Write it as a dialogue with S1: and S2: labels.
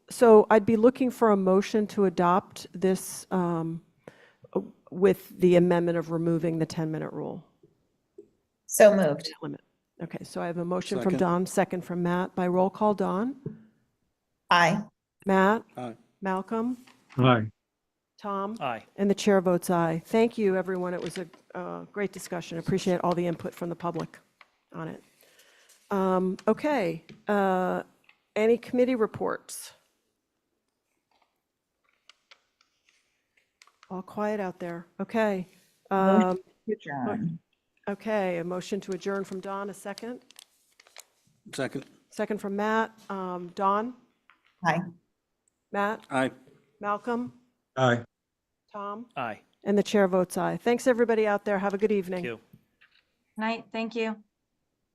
S1: So I'd be looking for a motion to adopt this um, with the amendment of removing the 10-minute rule
S2: So moved.
S1: limit. Okay, so I have a motion from
S3: Second.
S1: Don, second from Matt. By roll call, Don?
S2: Aye.
S1: Matt?
S3: Aye.
S1: Malcolm?
S4: Aye.
S1: Tom?
S5: Aye.
S1: And the chair votes aye. Thank you, everyone. It was a uh, great discussion. Appreciate all the input from the public on it. Um, Okay, uh, any committee reports? All quiet out there. Okay. Um,
S2: Adjourn.
S1: Okay, a motion to adjourn from Don, a second.
S3: Second.
S1: Second from Matt. Um, Don,
S2: Aye.
S1: Matt,
S3: Aye.
S1: Malcolm,
S4: Aye.
S1: Tom,
S5: Aye.
S1: and the chair votes aye. Thanks, everybody out there. Have a good evening.
S5: Q.
S6: Night, thank you.